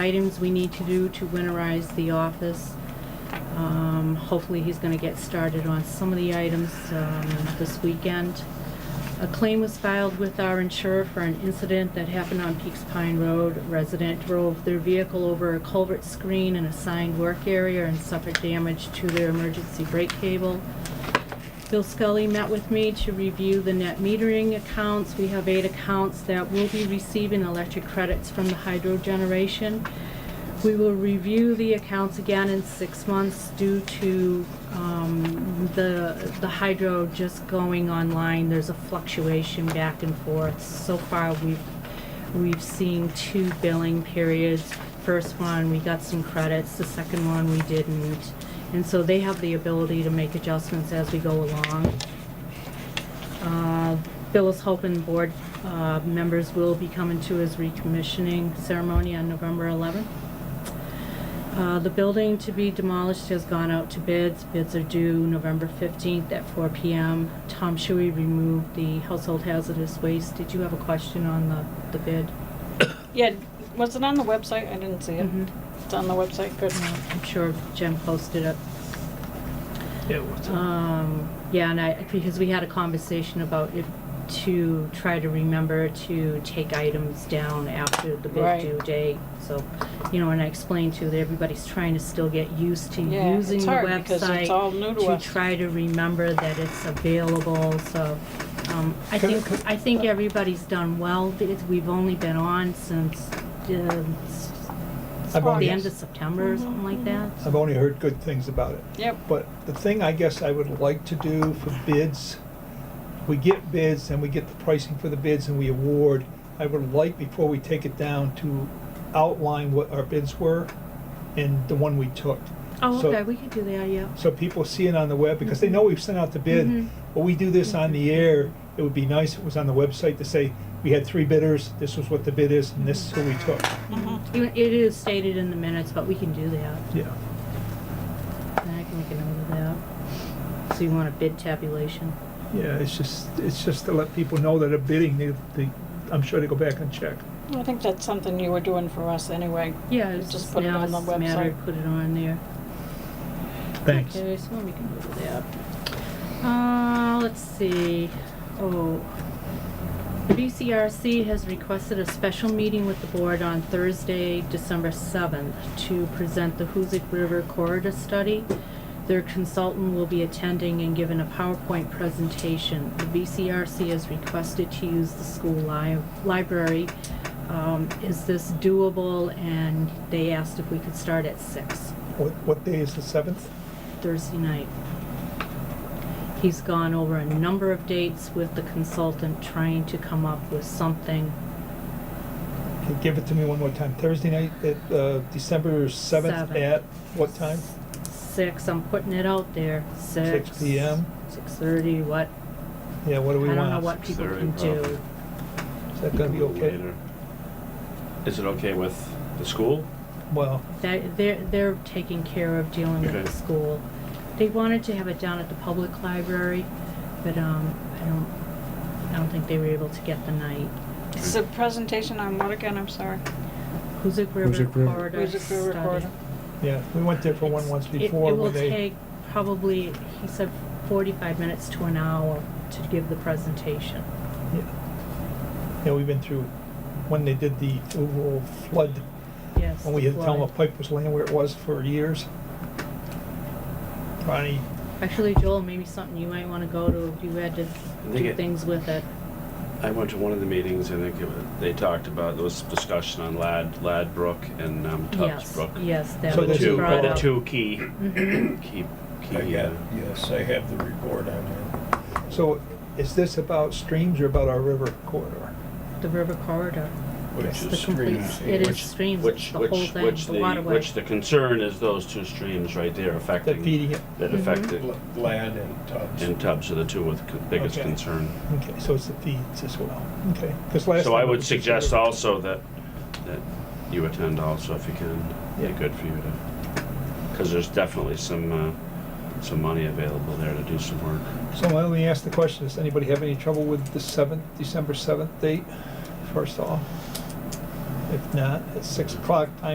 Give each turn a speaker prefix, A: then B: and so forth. A: items we need to do to winterize the office. Um, Hopefully, he's going to get started on some of the items um, this weekend. A claim was filed with our insurer for an incident that happened on Peaks Pine Road. A Resident drove their vehicle over a culvert screen in a signed work area and suffered damage to their emergency brake cable. Bill Scully met with me to review the net metering accounts. We have eight accounts that will be receiving electric credits from the hydro generation. We will review the accounts again in six months due to um, the the hydro just going online. There's a fluctuation back and forth. So far, we've We've seen two billing periods. First one, we got some credits, the second one, we didn't. And so they have the ability to make adjustments as we go along. Uh, Bill is hoping board uh, members will be coming to his recommissioning ceremony on November 11th. Uh, The building to be demolished has gone out to bids. Bids are due November 15th at 4 PM. Tom Shuey removed the household hazardous waste. Did you have a question on the the bid?
B: Yeah, was it on the website? I didn't see it.
A: Mhm.
B: It's on the website, good.
A: No, I'm sure Jim posted it.
C: Yeah, what's up?
A: Um, Yeah, and I, because we had a conversation about if to try to remember to take items down after the bid
B: Right.
A: due date. So, you know, and I explained to that everybody's trying to still get used to
B: Yeah,
A: using
B: it's
A: the
B: hard because
A: website
B: it's all new to
A: to
B: us.
A: try to remember that it's available, so, um, I
C: Can I- uh,
A: think,
C: can-
A: I think everybody's done well. It's- We've only been on since, uh, s-
C: I've only-
A: the end of September or
B: Mm-hmm.
A: something like that.
C: I've only heard good things about it.
B: Yep,
C: But the thing I guess I would like to do for bids, we get bids and we get the pricing for the bids and we award. I would like, before we take it down, to outline what our bids were and the one we took.
A: Oh,
C: So-
A: okay, we could do that, yeah.
C: So people see it on the web, because they know we've sent out the
A: Mhm.
C: bid, but we do this on the
A: Mm-hmm.
C: air. It would be nice if it was on the website to say, we had three bidders, this was what the bid is, and this is who we took.
B: Mm-hmm.
A: You- Mm-hmm. It is stated in the minutes, but we can do that.
C: Yeah.
A: And I can make a note of that. So you want a bid tabulation?
C: Yeah, it's just, it's just to let people know that they're bidding, they, they, I'm sure they go back and check.
B: I think that's something you were doing for us anyway.
A: Yeah,
B: You
A: it's
B: Just
A: just
B: put it
A: now
B: on
A: it's
B: the
A: just a matter
B: website.
A: of put it on there.
C: Thanks.
A: Okay, so we can do that. Uh, let's see, oh. The BCRC has requested a special meeting with the board on Thursday, December seventh, to present the Hoosic River Corridor Study. Their consultant will be attending and giving a PowerPoint presentation. The BCRC has requested to use the school li- library. Um, is this doable? And they asked if we could start at six.
C: What, what day is the seventh?
A: Thursday night. He's gone over a number of dates with the consultant trying to come up with something.
C: Give it to me one more time, Thursday night, at, uh, December seventh
A: Seven.
C: at what time?
A: Six, I'm putting it out there, six.
C: 6 p.m.?
A: Six thirty, what,
C: Yeah, what
A: I
C: do we
A: don't
C: want?
A: know what people can
D: 6:30,
A: do.
C: Is that gonna be okay?
D: Later. Is it okay with the school?
C: Well,
A: That, they're, they're taking care of dealing with
D: Okay.
A: the school. They wanted to have it down at the public library, but, um, I don't, I don't think they were able to get the night.
B: It's a presentation on what again, I'm sorry?
A: Hoosic River
E: Hoosic River.
A: Corridor
B: Music for
A: Study.
B: recorder.
C: yeah, we went there for one
A: It's-
C: once
A: it-
C: before,
A: It
C: where
A: will
C: they,
A: take probably, he said, forty-five minutes to an hour to give the presentation.
C: yeah. Yeah, we've been through, when they did the overall flood,
A: Yes.
C: when we had to tell them a
A: flood.
C: pipe was laying where it was for years. Ronnie,
A: Actually, Joel, maybe something you might wanna go to, you had to
D: They
A: do
D: get-
A: things with it.
D: I went to one of the meetings, I think it was- they talked about, there was discussion on Lad, Lad Brook and um, Tubbs
A: Yes,
D: Brook.
A: yes, that
C: So
D: The
A: was
C: there's a-
D: two,
A: brought
D: are
A: up. Mm-hmm.
D: the two key, key,
E: I
D: key,
E: got,
D: uh,
E: yes, I have the report on it.
C: so is this about streams or about our river corridor?
A: The river corridor.
E: Which
A: It's
E: is
A: the complete-
E: streams.
A: It is
D: which-
A: streams, it's
D: which,
A: the whole
D: which,
A: thing,
D: which
A: the
D: the,
A: waterway.
D: which the concern is those two streams right there
C: That
D: affecting,
C: feeding it?
D: that
A: Mhm.
D: affected,
E: Lad and Tubbs.
D: and Tubbs are the two with con- biggest
C: Okay.
D: concern.
C: Okay, so it's the feeds as well, okay. 'Cause last
D: So I
C: time it
D: would
C: was just
D: suggest
C: the river.
D: also that, that you attend also if you can. Be
C: Yeah.
D: good for you to, because there's definitely some, uh, some money available there to do some work.
C: So let me ask the question, does anybody have any trouble with the seventh, December seventh date, first off? If not, at six o'clock, I